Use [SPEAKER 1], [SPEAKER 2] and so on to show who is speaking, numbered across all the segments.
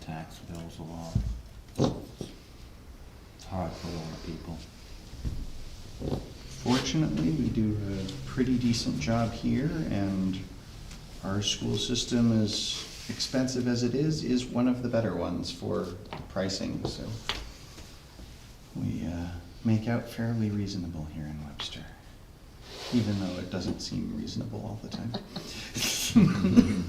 [SPEAKER 1] tax bills a lot. It's hard for a lot of people.
[SPEAKER 2] Fortunately, we do a pretty decent job here, and our school system, as expensive as it is, is one of the better ones for pricing, so we uh, make out fairly reasonable here in Webster, even though it doesn't seem reasonable all the time.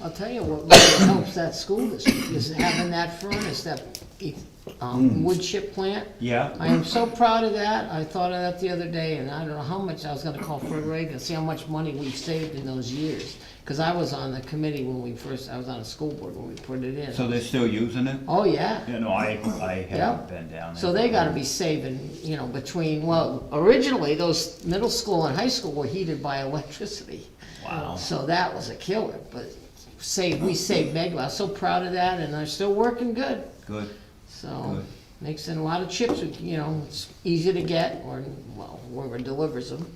[SPEAKER 3] I'll tell you what really helps that school district is having that furnace, that, um, wood chip plant. I
[SPEAKER 1] Mm. Yeah,
[SPEAKER 3] am so proud of that. I thought of that the other day, and I don't know how much I was gonna call Fred Reagan, see how much money we've saved in those years. Cause I was on the committee when we first, I was on a school board when we put it in.
[SPEAKER 1] so they're still using it?
[SPEAKER 3] Oh, yeah.
[SPEAKER 1] You know, I, I
[SPEAKER 3] Yeah.
[SPEAKER 1] haven't been down there.
[SPEAKER 3] So they gotta be saving, you know, between, well, originally, those middle school and high school were heated by electricity.
[SPEAKER 1] Wow.
[SPEAKER 3] So that was a killer, but save, we saved Megla, I was so proud of that, and they're still working good.
[SPEAKER 1] Good.
[SPEAKER 3] So,
[SPEAKER 1] Good.
[SPEAKER 3] makes in a lot of chips, you know, it's easy to get, or, well, whoever delivers them.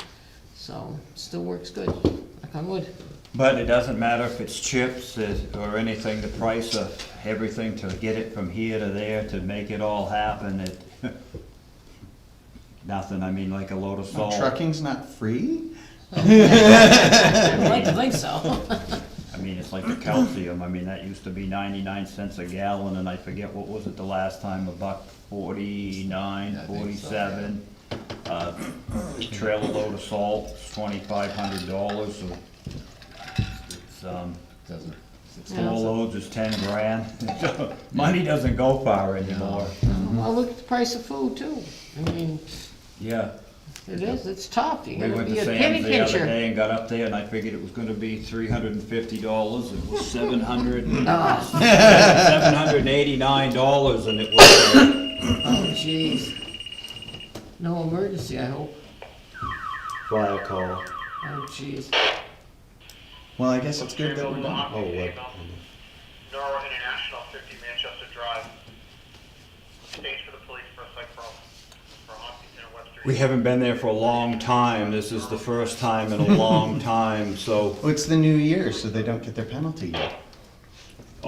[SPEAKER 3] So, still works good, knock on wood.
[SPEAKER 1] But it doesn't matter if it's chips is- or anything, the price of everything to get it from here to there to make it all happen, it, nothing, I mean, like a load of salt.
[SPEAKER 2] Trucking's not free?
[SPEAKER 4] I'd like to think so.
[SPEAKER 1] I mean, it's like the calcium, I mean, that used to be ninety-nine cents a gallon, and I forget, what was it the last time, a buck forty-nine, forty-seven? Uh, Trailer load of salt, twenty-five hundred dollars, so it's, um,
[SPEAKER 5] Doesn't,
[SPEAKER 3] Yeah.
[SPEAKER 1] four loads is ten grand. Money doesn't go far anymore,
[SPEAKER 3] Well, look at the price of food too, I mean,
[SPEAKER 1] yeah.
[SPEAKER 3] it is, it's tough, you
[SPEAKER 1] We
[SPEAKER 3] gotta
[SPEAKER 1] went
[SPEAKER 3] be
[SPEAKER 1] to
[SPEAKER 3] a penny
[SPEAKER 1] Sam's the other
[SPEAKER 3] pincher.
[SPEAKER 1] day and got up there, and I figured it was gonna be three hundred and fifty dollars, it was seven hundred
[SPEAKER 3] Oh,
[SPEAKER 1] seven hundred and eighty-nine dollars, and it was, uh,
[SPEAKER 3] jeez. No emergency, I hope,
[SPEAKER 1] File call.
[SPEAKER 3] oh, jeez.
[SPEAKER 2] Well, I guess it's good that we're done.
[SPEAKER 6] Oh,
[SPEAKER 5] what?
[SPEAKER 6] Norwell International, 50 Manchester Drive. Stage for the police for a site problem for Hopkins and Webster.
[SPEAKER 1] We haven't been there for a long time. This is the first time in a long time, so.
[SPEAKER 2] Well, it's the new year, so they don't get their penalty yet.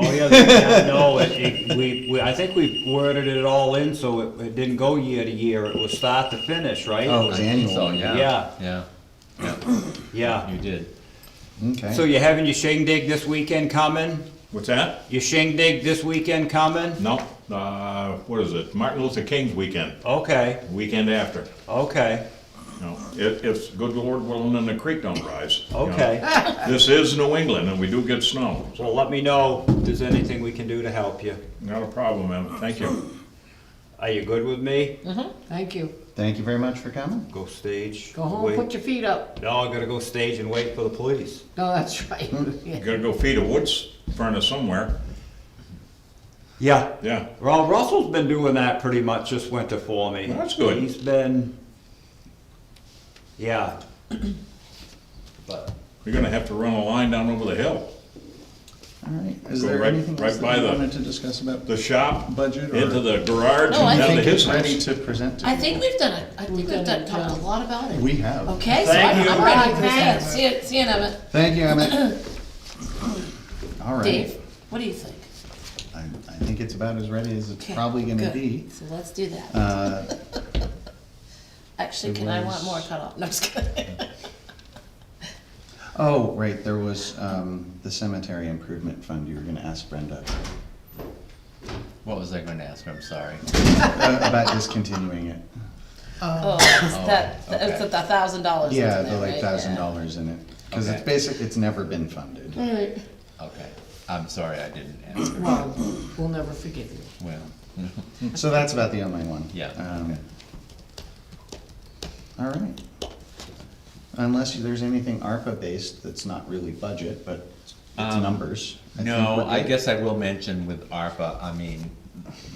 [SPEAKER 1] Oh, yeah, yeah, no, it, it, we, we, I think we worded it all in, so it, it didn't go year to year. It was start to finish, right?
[SPEAKER 2] Oh, it's
[SPEAKER 5] so,
[SPEAKER 2] annual.
[SPEAKER 5] yeah, yeah,
[SPEAKER 1] Yeah.
[SPEAKER 5] you did.
[SPEAKER 1] So
[SPEAKER 2] Okay.
[SPEAKER 1] you're having your shindig this weekend coming?
[SPEAKER 7] What's that?
[SPEAKER 1] Your shindig this weekend coming?
[SPEAKER 7] No, uh, what is it? Martin Luther King's weekend,
[SPEAKER 1] Okay,
[SPEAKER 7] weekend after.
[SPEAKER 1] okay,
[SPEAKER 7] No, it, it's good Lord willing and the creek don't rise. you know.
[SPEAKER 1] okay.
[SPEAKER 7] This is New England and we do get snow, so
[SPEAKER 1] Well, let me know if there's anything we can do to help you.
[SPEAKER 7] not a problem, Emmett. Thank you.
[SPEAKER 1] Are you good with me?
[SPEAKER 3] Thank you,
[SPEAKER 2] Thank you very much for coming.
[SPEAKER 1] Go stage.
[SPEAKER 3] go home,
[SPEAKER 1] wait.
[SPEAKER 3] put your feet up,
[SPEAKER 1] No, I gotta go stage and wait for the police.
[SPEAKER 3] no, that's right,
[SPEAKER 7] You gotta go feed a woods furnace somewhere.
[SPEAKER 1] Yeah.
[SPEAKER 7] Yeah,
[SPEAKER 1] Well, Russell's been doing that pretty much this winter for me.
[SPEAKER 7] Well, that's good.
[SPEAKER 1] He's been, yeah. But
[SPEAKER 7] you're gonna have to run a line down over the hill.
[SPEAKER 2] All right. Is
[SPEAKER 7] Go
[SPEAKER 2] there
[SPEAKER 7] right-
[SPEAKER 2] anything
[SPEAKER 7] right
[SPEAKER 2] else
[SPEAKER 7] by
[SPEAKER 2] that you
[SPEAKER 7] the-
[SPEAKER 2] wanted to discuss about?
[SPEAKER 7] The shop,
[SPEAKER 2] Budget or-
[SPEAKER 7] into the garage
[SPEAKER 4] No, I
[SPEAKER 7] and
[SPEAKER 2] I
[SPEAKER 7] down to
[SPEAKER 2] think
[SPEAKER 7] his
[SPEAKER 2] it's ready
[SPEAKER 7] house.
[SPEAKER 2] to present. to
[SPEAKER 4] I
[SPEAKER 2] you.
[SPEAKER 4] think we've done it. I
[SPEAKER 3] We've
[SPEAKER 4] think we've
[SPEAKER 3] done
[SPEAKER 4] done,
[SPEAKER 3] it,
[SPEAKER 4] talked
[SPEAKER 3] yeah.
[SPEAKER 4] a lot about it.
[SPEAKER 2] We have.
[SPEAKER 4] Okay, so
[SPEAKER 1] Thank
[SPEAKER 4] I'm
[SPEAKER 1] you.
[SPEAKER 4] I'm ready
[SPEAKER 3] Thank
[SPEAKER 4] to
[SPEAKER 3] you.
[SPEAKER 4] bang. See you, see you in a minute.
[SPEAKER 2] Thank you, Emmett. All right.
[SPEAKER 4] Dave, what do you think?
[SPEAKER 2] I, I think it's about as ready as it's
[SPEAKER 4] Okay,
[SPEAKER 2] probably gonna
[SPEAKER 4] good.
[SPEAKER 2] be.
[SPEAKER 4] So let's do that.
[SPEAKER 2] Uh,
[SPEAKER 4] Actually,
[SPEAKER 2] there
[SPEAKER 4] can I want
[SPEAKER 2] was-
[SPEAKER 4] more cut off? No, I'm just kidding.
[SPEAKER 2] oh, right, there was um, the cemetery improvement fund. You were gonna ask Brenda
[SPEAKER 5] What was I gonna ask? I'm sorry.
[SPEAKER 2] uh, about discontinuing it.
[SPEAKER 4] Oh, it's
[SPEAKER 5] Oh,
[SPEAKER 4] that, it's
[SPEAKER 5] okay.
[SPEAKER 4] the thousand dollars.
[SPEAKER 2] Yeah, the like thousand dollars in it, because it's
[SPEAKER 5] Okay.
[SPEAKER 2] basic. It's never been funded.
[SPEAKER 3] alright,
[SPEAKER 5] Okay, I'm sorry I didn't answer.
[SPEAKER 3] well, we'll never forgive you.
[SPEAKER 5] Well,
[SPEAKER 2] So that's about the only one.
[SPEAKER 5] Yeah,
[SPEAKER 2] Um, All right. Unless you- there's anything ARPA-based that's not really budget, but it's
[SPEAKER 5] Um,
[SPEAKER 2] numbers. I think
[SPEAKER 5] no,
[SPEAKER 2] we're
[SPEAKER 5] I
[SPEAKER 2] good.
[SPEAKER 5] guess I will mention with ARPA, I mean,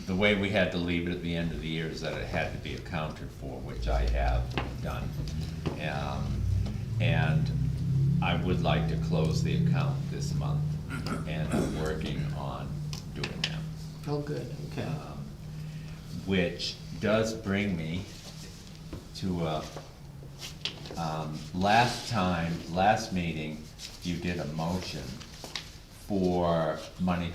[SPEAKER 5] the way we had to leave it at the end of the year is that it had to be accounted for, which I have done. Um, And I would like to close the account this month, and I'm working on doing that.
[SPEAKER 3] Oh, good, okay.
[SPEAKER 5] which does bring me to, uh, um, last time, last meeting, you did a motion for money